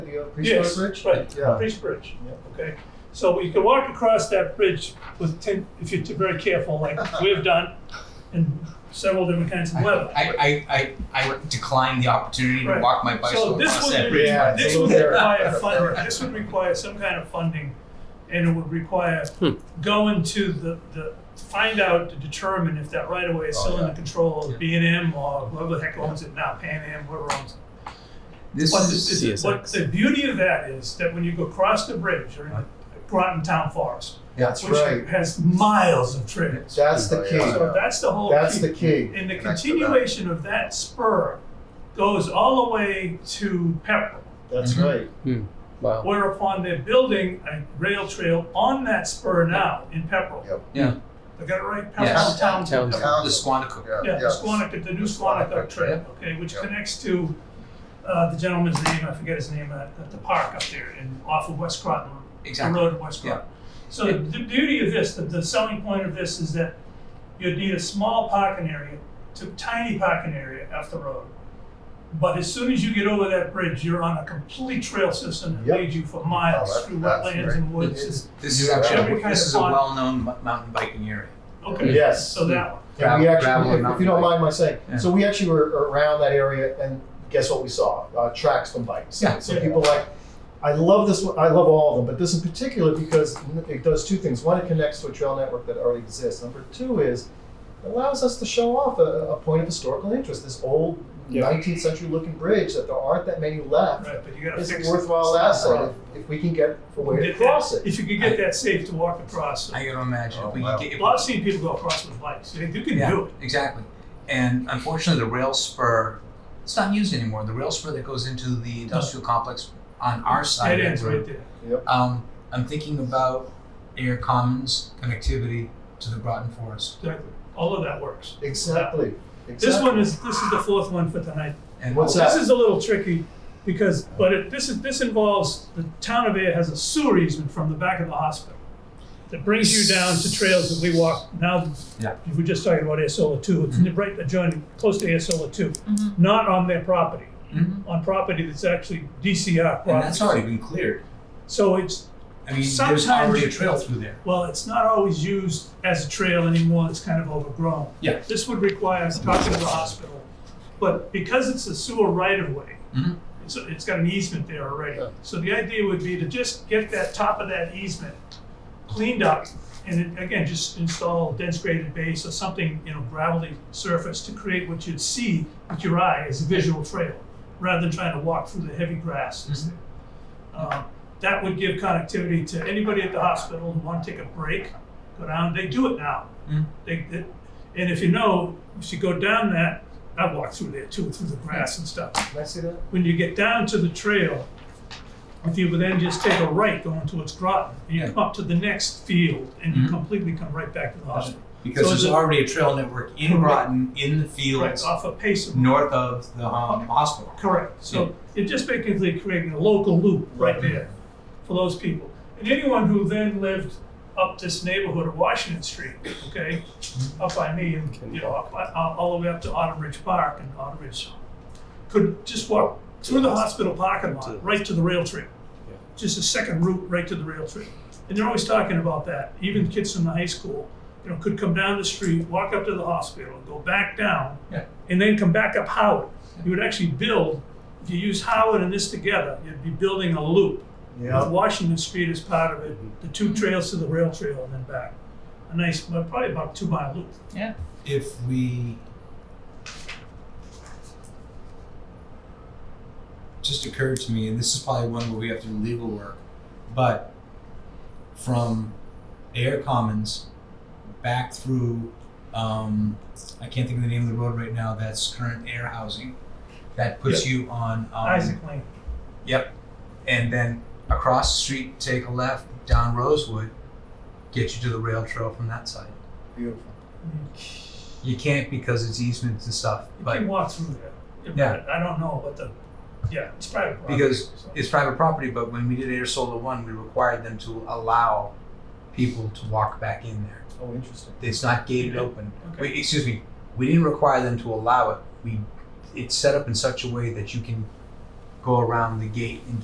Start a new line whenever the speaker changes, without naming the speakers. uh, Priest
Yes,
Road Bridge?
Right,
Yeah.
Priest Bridge,
Yeah.
okay? So you can walk across that bridge with ten, if you're very careful, like we've done, and several different kinds of weather.
I, I, I, I declined the opportunity to
Right.
walk my
So
bicycle
this
across that
would,
bridge.
Yeah,
require-
it's
this
a
would
little
require
there.
funding, this would require some kind of funding, and it would require
Hmm.
going to the, the, to find out, to determine if that right of way is
Oh,
still in
yeah.
the control
Yeah.
of B and M or whoever the heck owns it now, Pan Am, whoever owns it.
This
But
is-
the- the- what
CSX.
the beauty of that is that when you go across the bridge, you're in the Groton Town Forest,
That's
which
right.
has miles of trails.
That's the
Oh,
key.
yeah.
So that's the whole.
That's
key.
the key.
And the
Connects to that.
continuation of that spur goes all the way to Pepperell,
That's
Mhm.
right.
Wow.
whereupon they're building a rail trail on that spur now in Pepperell.
Yep.
Yeah.
I got it right?
Yes.
Pepperell Town. to
Towns.
Pepperell.
Town.
the Squanicook.
Yeah,
Yeah,
yeah.
the Squanicook, the new Squanicook Trail, okay, which
Yeah.
connects to, uh, the gentleman's name, I forget his name, at, at the park up there in, off of West Groton, the
Exactly.
road in West Groton. So the the beauty of this, the, the selling point of this is that you'd need a small parking area, to tiny parking area off the road. But as soon as you get over that bridge, you're on a complete trail system that
Yep.
leads you for
Oh,
miles
that-
through
that's
wetlands
great.
and woods.
This
and-
is, this is
Yeah.
actually,
Every kind
this
of
is a
fun.
well-known mu- mountain biking area.
Okay.
Yes.
So that one.
Mm-hmm. And we
Gravel-
actually,
gravel and
if- if you don't
mountain
mind my saying,
Yeah.
so we actually were around that area and guess what we saw? Uh, tracks from bikes.
Yeah.
So
Yeah.
people like, I love this one, I love all of them, but this in particular because it does two things. One, it connects to a trail network that already exists. Number two is it allows us to show off a, a point of historical interest. This old
Yeah.
19th century looking bridge that there aren't that many left.
Right, but you gotta
It's
fix
a
it.
worthwhile
It's not
asset
around.
if, if we can get a way to
Get
cross
that-
it.
If you could get that safe to walk across. so-
I gotta imagine,
Oh,
if we
wow.
could get,
Well, I've seen people go across with bikes. They, you can
yeah,
do it.
exactly. And unfortunately, the rail spur, it's not used anymore, the rail spur that goes into the industrial complex on our side
It
of
ends
the road.
right there.
Um, I'm thinking about air commons connectivity to the Groton Forest.
Exactly. All of that works.
Exactly.
This
exactly.
one is, this is the fourth one for tonight.
And
What's that?
This is a little tricky because, but it, this is, this involves, the town of Air has a sewer easement from the back of the hospital that brings you down to trails that we walk now.
Yeah. Mm-hmm.
If we're just talking about Air Solar Two, it's right adjoining, close to Air Solar Two, not on their property,
Mhm.
on property that's actually DCR
And that's
property.
already been cleared.
So it's,
I mean,
Sometimes-
there's already a trail through there.
well, it's not always used as a trail anymore, it's kind of overgrown.
Yeah.
This would require talking to the hospital, but because it's a sewer right of way,
Mhm.
it's, it's got an easement there already.
Yeah.
So the idea would be to just get that top of that easement cleaned up and it- again, just install dense graded base or something, you know, gravelly surface to create what you'd see with your eye as a visual trail, rather than trying to walk through the heavy grass. that's there. Um, That would give connectivity to anybody at the hospital who want to take a break, go down, they do it now.
Mhm.
They, they- and if you know, if you go down that, I walk through there too, through the grass and stuff.
Can I see that?
When you get down to the trail, if you would then just take a right going towards Groton, and you
Yeah.
come up to the next field, and you
Mhm.
completely come right back to the hospital.
Because
So
there's
is it-
already a trail network in
Correct.
Groton, in the
Right,
fields,
off of Pace.
north of the um, hospital.
Correct, so you're just basically creating a local loop right
Right.
there for those people. And anyone who then lived up this neighborhood of Washington Street, okay, up by me and, you know, up, by- all all the way up to Autumn Ridge Park and Autumn Ridge, could just walk through the hospital parking
To-
lot, right to the rail trail.
Yeah.
Just a second route right to the rail trail. And they're always talking about that, even kids from the high school, you know, could come down the street, walk up to the hospital, go back down,
Yeah.
and then come back up Howard. You would actually build, if you use Howard and this together, you'd be building a loop. With
Yeah.
Washington Street as part of it, the two trails to the rail trail and then back. A nice, well, probably about two mile loop.
If we just occurred to me, and this is probably one where we have to do legal work, but from Air Commons back through, um, I can't think of the name of the road right now. That's current air housing. That puts you on um,
Isaac Lane.
Yep. And then across the street, take a left down Rosewood, get you to the rail trail from that side.
Beautiful.
You can't because it's easements and stuff,
You
but
can walk through there. Yeah,
Yeah.
but I don't know, but the, yeah, it's private property.
Because
so-
it's private property. But when we did Air Solar One, we required them to allow people to walk back in there.
Oh, interesting.
It's not gated open.
Okay.
We, excuse me. We didn't require them to allow it. We it's set up in such a way that you can go around the gate and